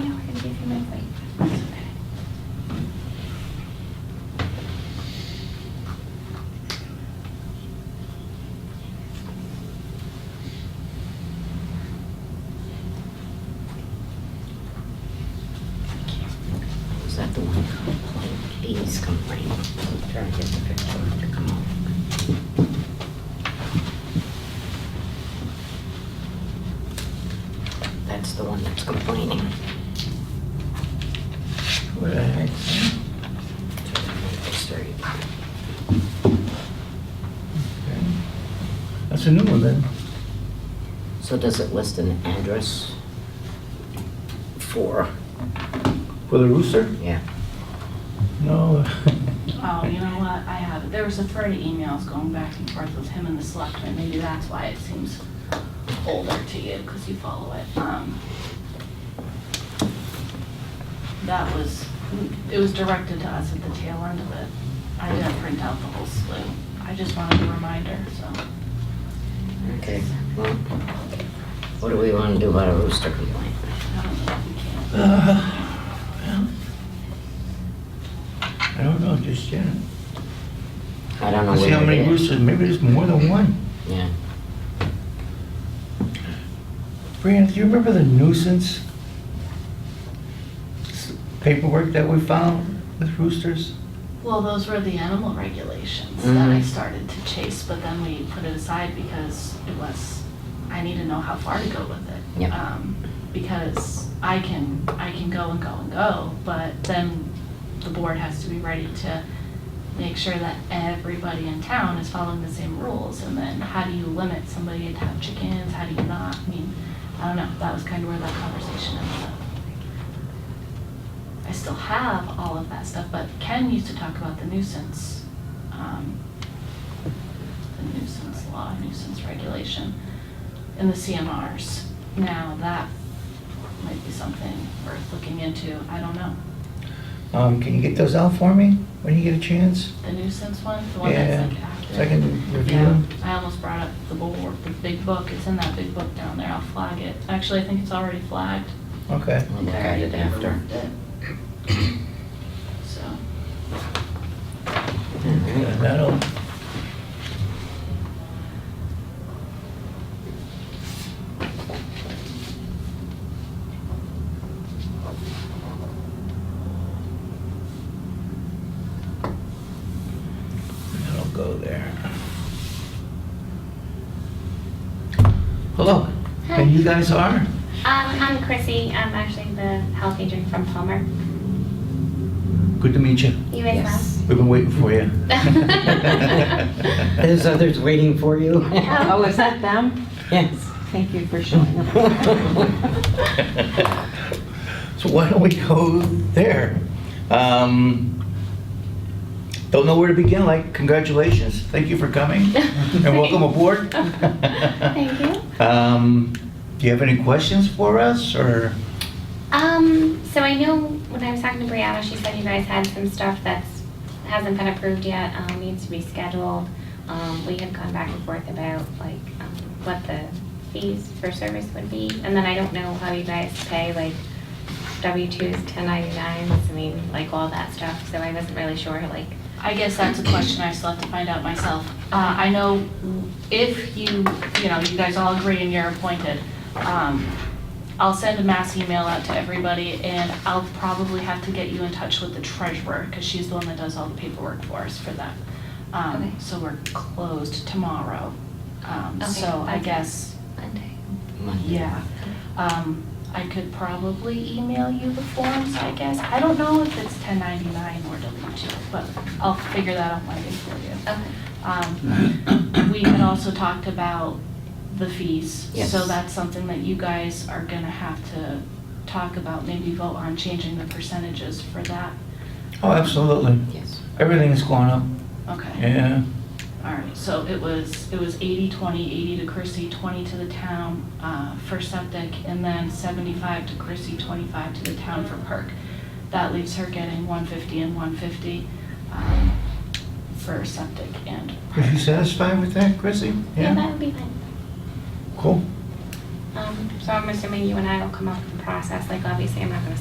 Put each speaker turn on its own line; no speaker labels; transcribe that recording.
Um,
noise complaint. I'm Trying to get the picture to come off. That's the one that's complaining.
What I had said.
To Maple Street.
Okay. That's a new one then.
So does it list an address for,
For the rooster?
yeah,
No.
Oh, you know what, I have, it. there was a flurry of emails going back and forth with him and the selectmen, maybe that's why it seems older to you, because you follow it. Um, That was, it was directed to us at the tail end of it. I didn't print out the whole slew, I just wanted a reminder, so.
okay, well, what do we want to do about a rooster complaint?
I don't know if we
Uh,
can.
I don't know, just yet.
I don't know
Let's see how
where
many
it is.
roosters, maybe there's more than one.
Yeah,
Brianna, do you remember the nuisance s- paperwork that we found with roosters?
Well, those were the animal regulations that I
Mhm.
started to chase, but then we put it aside because it was, I need to know how far to go with it.
Yep.
Um, Because I can, I can go and go and go, but then the board has to be ready to make sure that everybody in town is following the same rules. And then how do you limit somebody to have chickens, how do you not? I mean, I don't know, that was kind of where that conversation ended up. I still have all of that stuff, but Ken used to talk about the nuisance, um, the nuisance law, nuisance regulation, and the CMRs. Now, that might be something worth looking into, I don't know.
Um, can you get those out for me when you get a chance?
The nuisance one, the one that's like active.
So I can review
Yeah,
them?
I almost brought up the board, the big book, it's in that big book down there, I'll flag it. Actually, I think it's already flagged.
Okay.
we'll look at it after.
So,
All right.
And That'll, that'll go there. Hello,
Hi.
and you guys are?
Um, I'm Chrissy. I'm actually the health agent from Palmer.
Good to meet you.
You guys
Yes.
We've been waiting for you.
There's others waiting for you.
Oh, is that them?
Yes.
Thank you for showing up.
So why don't we go there? Um, don't know where to begin, like, congratulations, thank you for coming, and welcome aboard.
Thank you.
Um, do you have any questions for us, or?
Um, so I know when I was talking to Brianna, she said you guys had some stuff that's hasn't been approved yet, um, needs to be scheduled. Um, we had gone back and forth about like um, what the fees for service would be, and then I don't know how you guys pay like W twos, ten ninety nines. I mean, like all that stuff. So I wasn't really sure like
I guess that's a question I still have to find out myself. Uh, I know if you, you know, you guys all agree and you're appointed, um, I'll send a mass email out to everybody and I'll probably have to get you in touch with the treasurer because she's the one that does all the paperwork for us for that.
Okay.
Um, so we're closed tomorrow. Um,
Okay,
so I
okay.
guess,
Monday.
yeah. Um, I could probably email you the forms, I guess. I don't know if it's ten ninety-nine or W two, but I'll figure that out later for you.
Okay.
Um, We had also talked about the fees.
Yes.
So that's something that you guys are gonna have to talk about, maybe vote on changing the percentages for that.
Oh, absolutely,
Yes.
everything is going up,
Okay,
yeah,
all right, so it was, it was 80, 20, 80 to Chrissy, 20 to the town uh, for septic, and then 75 to Chrissy, 25 to the town for perk. That leaves her getting 150 and 150 um, for septic and
are you
perk.
satisfied with that, Chrissy?
Yeah, that would be fine.
Cool,
Um, so I'm assuming you and I will come up with a process, like obviously I'm not gonna